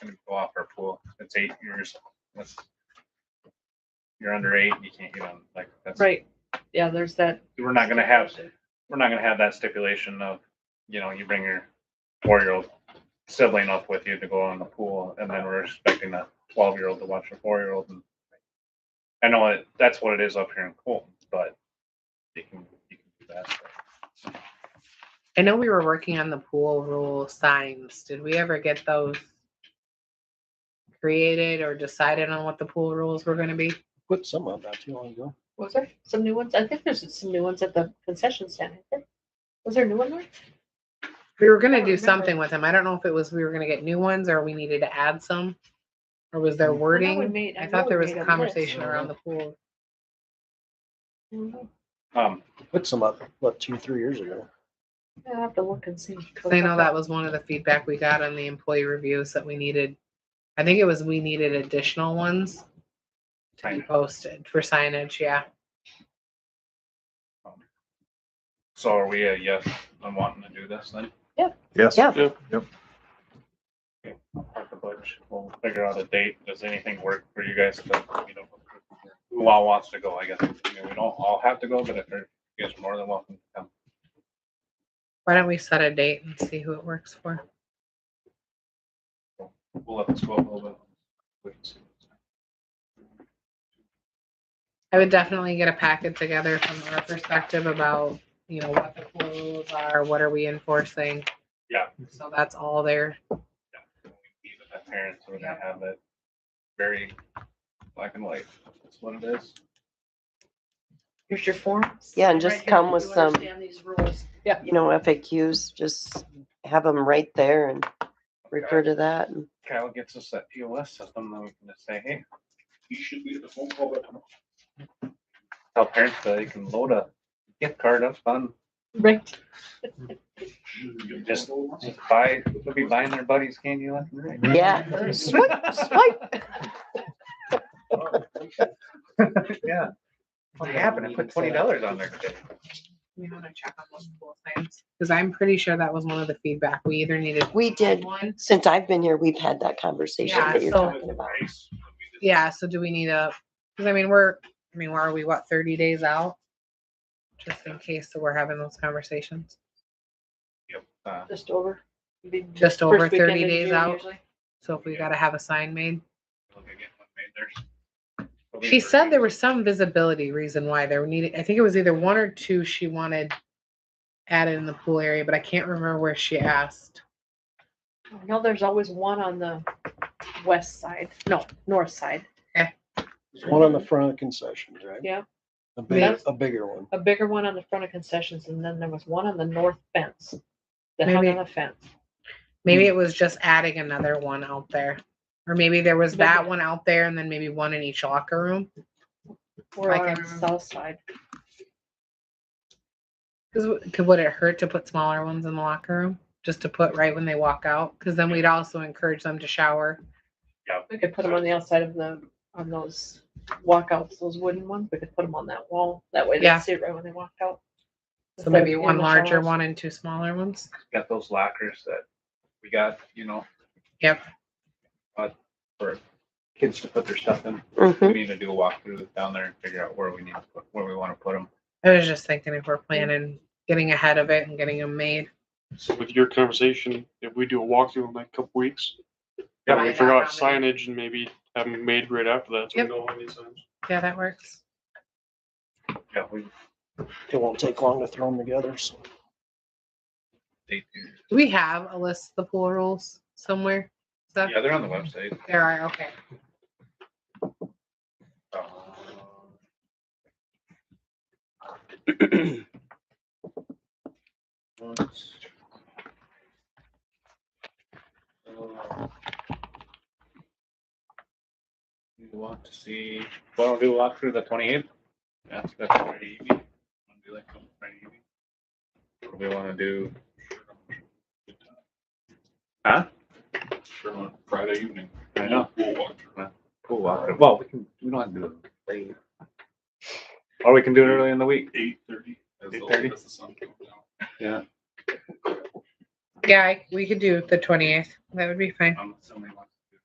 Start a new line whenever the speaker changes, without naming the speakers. it's eight years, that's. You're under eight, you can't get on, like, that's.
Right, yeah, there's that.
We're not gonna have, we're not gonna have that stipulation of, you know, you bring your four-year-old sibling up with you to go on the pool, and then we're expecting a twelve-year-old to watch a four-year-old. and I know it, that's what it is up here in Colton, but you can, you can do that.
I know we were working on the pool rule signs. Did we ever get those created or decided on what the pool rules were gonna be?
put some up not too long ago.
Was there some new ones? I think there's some new ones at the concession stand. I think. Was there a new one there?
We were
I
gonna
don't
do
remember.
something with them. I don't know if it was we were gonna get new ones or we needed to add some. Or was there
I know we
wording?
made-
I
know
thought
we
there was
made
a
list.
conversation around the pool.
Mhm.
Um,
Put some up, what, two, three years ago.
I'll have to look and see.
'Cause I know that was one of the feedback we got on the employee reviews that we needed. I think it was we needed additional ones to be
Signage.
posted for signage, yeah.
so are we a yes on wanting to do this then?
Yes.
Yeah.
at the budge. We'll figure out a date. Does anything work for you guys? to, you know, Who all wants to go, I guess. I mean, we don't all have to go, but if there- you guys are more than welcome to come.
Why don't we set a date and see who it works for?
We'll let this go a little bit. We can see.
I would definitely get a packet together from our perspective about, you know, what the pool rules are, what are we enforcing?
Yeah.
So that's all there.
Even the parents are gonna have it very black and white. That's what it is.
Here's your forms.
Yeah, and just
Right here,
come
you
with some,
Understand these rules.
you know, FAQs, just have them right there and refer to that. and-
Kyle gets us that POS system, then we can just say, hey. You should be at the phone call button. Tell parents that they can load a gift card up on,
Right.
just buy, they'll be buying their buddies candy left and right.
Yeah,
Yeah. What happened? I put twenty dollars on there today.
We want to check on those pool signs. Cause I'm pretty sure that was one of the feedback. We either needed
we did.
one.
Since I've been here, we've had that conversation
Yeah,
that you're
so-
talking about.
Yeah, so do we need a, cause I mean, we're, I mean, where are we, what, thirty days out? Just in case that we're having those conversations.
Uh,
Just over. Be-
Just over
first weekend
30
in
days
June
out.
usually.
So if we gotta have a sign made.
look again, what made theirs.
She said there was some visibility reason why there needed, I think it was either one or two she wanted added in the pool area, but I can't remember where she asked.
I know there's always one on the west side, no, north side,
There's one on the front of the concessions, right?
Yeah.
A bigger, a bigger one.
a bigger one on the front of concessions, and then there was one on the north fence. That hung
Maybe-
on the fence.
Maybe it was just adding another one out there. Or maybe there was that one out there and then maybe one in each locker room.
We're
I
on
can
the
remember.
south side.
Cause w- could, would it hurt to put smaller ones in the locker room? Just to put right when they walk out? Cause then we'd also encourage them to shower.
We could put them on the outside of the, on those walkouts, those wooden ones, we could put them on that wall, that way
Yeah.
they see it right when they walk out.
So
Instead of
maybe
in
one
the
larger
showers.
one and two smaller ones.
Got those lockers that we got, you know.
Yep.
But for kids to put their stuff in, we
Hmm.
Mhm.
need to do a walkthrough down there and figure out where we need to put, where we wanna put them.
I was just thinking if we're planning, getting ahead of it and getting them made.
So with your conversation, if we do a walkthrough in like a couple weeks,
Yeah.
we figure out signage and maybe have them made right after that. so we
Yep.
know when these signs-
Yeah, that works.
Yeah, we,
It won't take long to throw them together, so.
they,
Do we have a list of the pool rules somewhere? Is that-
yeah, they're on the website.
There are, okay.
Uh, Let's- Uh, You want to see, why don't we do a walk through the twenty eighth? That's, that's Friday evening. Wanna do like on Friday evening? Or we wanna do? Huh? Sure, on Friday evening. I know. Pool walk. Pool walk, well, we can, we don't have to do it late. Or we can do it early in the week. Eight thirty. Eight thirty? Yeah.
Yeah, I- we could do the twenty eighth. That would be fine.
I'm assuming like